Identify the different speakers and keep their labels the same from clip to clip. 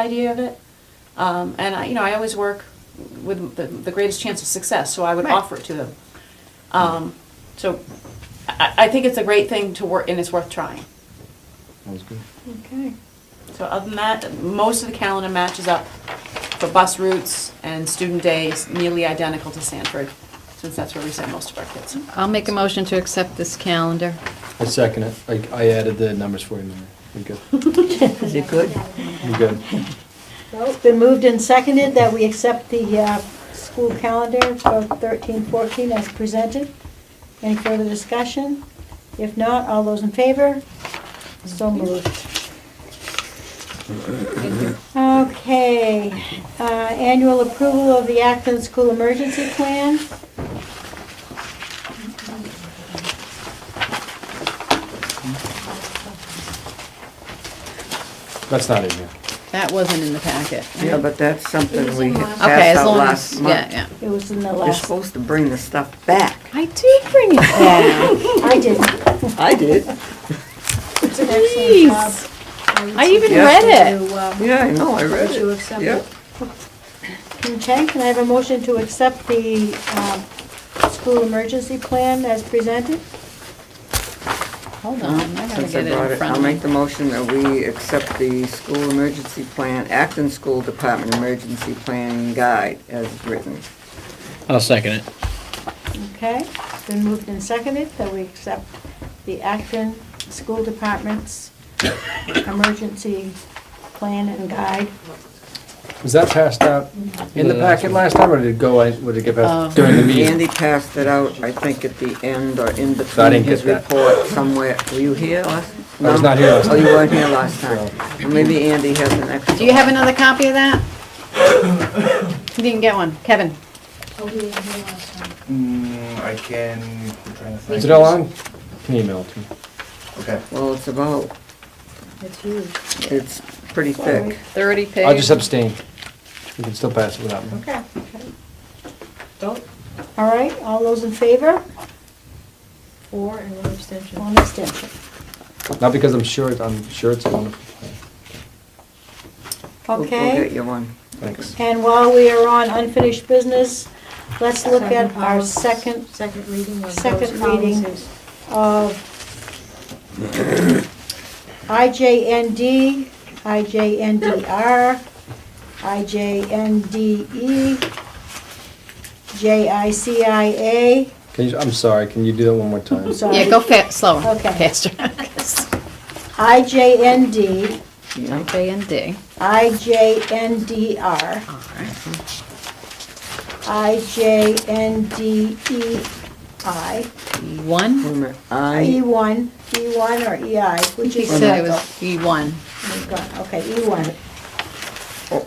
Speaker 1: idea of it. Um, and I, you know, I always work with the, the greatest chance of success, so I would
Speaker 2: Right.
Speaker 1: offer it to them. Um, so I, I think it's a great thing to work, and it's worth trying.
Speaker 3: Sounds good.
Speaker 2: Okay.
Speaker 1: So other than that, most of the calendar matches up for bus routes and student days, nearly identical to Sanford, since that's where we send most of our kids.
Speaker 4: I'll make a motion to accept this calendar.
Speaker 3: I second it. I, I added the numbers for you, Mary. You good?
Speaker 2: Is it good?
Speaker 3: You good?
Speaker 2: Well, it's been moved and seconded that we accept the uh, school calendar for 13, 14 as presented. Any further discussion? If not, all those in favor? So moved. Okay, uh, annual approval of the Acton School Emergency Plan.
Speaker 3: That's not in here.
Speaker 4: That wasn't in the packet.
Speaker 5: Yeah, but that's something we had
Speaker 4: Okay,
Speaker 5: passed
Speaker 4: as
Speaker 5: out
Speaker 4: long
Speaker 5: last
Speaker 4: as, yeah,
Speaker 5: month.
Speaker 4: yeah.
Speaker 2: It was in the
Speaker 5: You're
Speaker 2: last,
Speaker 5: supposed to bring the stuff back.
Speaker 4: I did bring it back.
Speaker 2: I didn't.
Speaker 5: I did.
Speaker 2: It's an excellent job.
Speaker 4: Please. I even
Speaker 5: Yeah.
Speaker 4: read it.
Speaker 2: um,
Speaker 5: Yeah, I know, I read
Speaker 6: you
Speaker 5: it.
Speaker 6: accept
Speaker 5: Yeah.
Speaker 6: it?
Speaker 2: Okay, can I have a motion to accept the um, school emergency plan as presented?
Speaker 4: Hold on, Um, I gotta
Speaker 5: Since I
Speaker 4: get it
Speaker 5: brought
Speaker 4: in
Speaker 5: it, I'll
Speaker 4: front
Speaker 5: make
Speaker 4: of
Speaker 5: the
Speaker 4: me.
Speaker 5: motion that we accept the school emergency plan, Acton School Department Emergency Plan Guide as written.
Speaker 7: I'll second it.
Speaker 2: Okay, it's been moved and seconded that we accept the Acton School Department's emergency plan and guide.
Speaker 3: Was that passed out in the packet last time, or did it go, in- would it get
Speaker 2: Um,
Speaker 3: passed during the meeting?
Speaker 5: Andy passed it out, I think, at the end or in between
Speaker 3: didn't get
Speaker 5: his
Speaker 3: that.
Speaker 5: report somewhere. Were you here last?
Speaker 3: I was
Speaker 5: No.
Speaker 3: not here last
Speaker 5: Oh, you
Speaker 3: time.
Speaker 5: weren't here last time. Well, Maybe Andy has an extra.
Speaker 4: Do you have another copy of that? You didn't get one. Kevin?
Speaker 6: Oh, we didn't hear last time.
Speaker 8: Mm, I can. I'm trying to think.
Speaker 3: Is it all on? Can you email it to me?
Speaker 8: Okay.
Speaker 5: Well, it's about,
Speaker 6: It's huge.
Speaker 5: it's pretty thick.
Speaker 4: 30 pages?
Speaker 3: I'll just abstain. We can still pass it without me.
Speaker 2: Okay.
Speaker 6: Vote
Speaker 2: All right, all those in favor?
Speaker 6: for and one abstention.
Speaker 2: One extension.
Speaker 3: Not because I'm sure, it- I'm sure it's a wonderful plan.
Speaker 5: We'll- We'll get
Speaker 2: Okay,
Speaker 5: you one.
Speaker 3: Thanks.
Speaker 2: and while we are on unfinished business, let's look at our second
Speaker 6: Second, policy- second reading of those
Speaker 2: second reading.
Speaker 6: policies.
Speaker 2: of IJND, IJNDR, IJNDE, JICIA.
Speaker 3: Can you, I'm sorry, can you do that one more time?
Speaker 2: Sorry.
Speaker 4: Yeah, go fa, slower,
Speaker 2: Okay.
Speaker 4: faster.
Speaker 2: IJND,
Speaker 5: Yeah.
Speaker 4: J and D.
Speaker 2: IJNDR,
Speaker 4: All right.
Speaker 2: E IJNDEI,
Speaker 5: Wait a
Speaker 4: One?
Speaker 5: minute. I,
Speaker 2: E1, E1 E or EI, which
Speaker 4: He
Speaker 2: is.
Speaker 4: said it was E E1.
Speaker 2: We've got- Okay, E E1.
Speaker 5: Oh.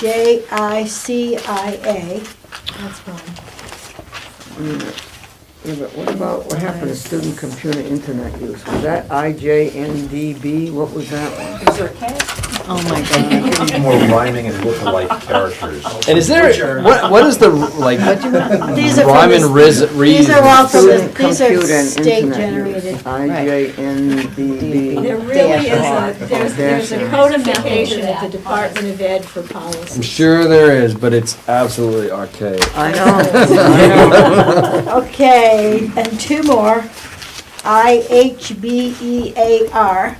Speaker 2: J-I-C-I-A,
Speaker 6: That's fine.
Speaker 5: yeah, but what about, what happened to student computer internet use? Was that IJNDB? What was that one?
Speaker 1: Is there a K?
Speaker 4: Oh, my God.
Speaker 8: I think more rhyming and lookalike characters.
Speaker 3: And is there, what, what is the, like,
Speaker 2: These are from
Speaker 3: rhyme and
Speaker 2: the-
Speaker 3: riz, reason?
Speaker 2: these are all from the-
Speaker 5: Student
Speaker 2: Oh, these are
Speaker 5: computer and
Speaker 2: state
Speaker 5: internet use.
Speaker 2: generated.
Speaker 5: IJNDB.
Speaker 6: There really is
Speaker 5: R.
Speaker 6: a, there's, there's a
Speaker 5: Dash R.
Speaker 6: codification at the Department of Ed for policy.
Speaker 3: I'm sure there is, but it's absolutely archaic.
Speaker 5: I know.
Speaker 2: Okay, and two more. E I-H-B-E-A-R.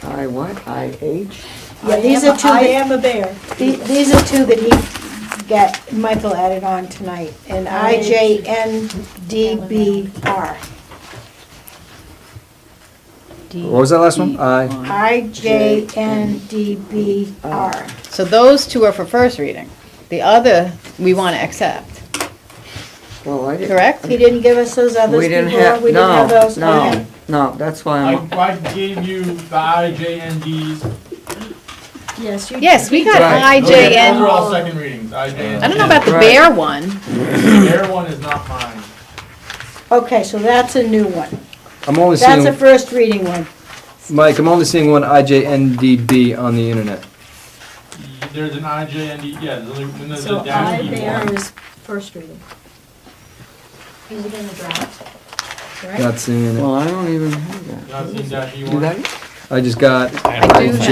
Speaker 5: I what? IH?
Speaker 2: Yeah, these are two
Speaker 6: I
Speaker 2: that-
Speaker 6: am a bear.
Speaker 2: The- These are two that he got, Michael added on tonight, and I-J-N-D-B-R.
Speaker 3: What was that last one? I,
Speaker 2: I-J-N-D-B-R.
Speaker 4: So those two are for first reading. The other, we want to accept,
Speaker 5: Well, I didn't.
Speaker 4: correct?
Speaker 2: He didn't give us those others
Speaker 5: We didn't
Speaker 2: before?
Speaker 5: have,
Speaker 2: We didn't have
Speaker 5: no,
Speaker 2: those? Okay.
Speaker 5: no, no, that's why
Speaker 9: I,
Speaker 5: I'm,
Speaker 9: I gave you the IJNDs.
Speaker 6: Yes, you.
Speaker 4: Yes, we got
Speaker 5: Right. Oh,
Speaker 9: Those are
Speaker 4: IJN.
Speaker 9: all second readings, IJNDs.
Speaker 4: I don't know about the
Speaker 5: Right.
Speaker 4: bear one.
Speaker 9: Their one is not mine.
Speaker 2: Okay, so that's a new one.
Speaker 3: I'm only
Speaker 2: That's a
Speaker 3: seeing,
Speaker 2: first reading one.
Speaker 3: Mike, I'm only seeing one IJNDB on the internet.
Speaker 9: There's an IJND, yeah, there's, only- and there's
Speaker 6: So
Speaker 9: a dash
Speaker 6: I
Speaker 9: E
Speaker 6: bear
Speaker 9: one.
Speaker 6: is first reading. Is it in the draft? Right?
Speaker 3: Not seeing it.
Speaker 5: well, I don't even have that.
Speaker 9: Not seeing dash E
Speaker 5: You
Speaker 9: one.
Speaker 5: got it?
Speaker 3: I just got
Speaker 4: I do have.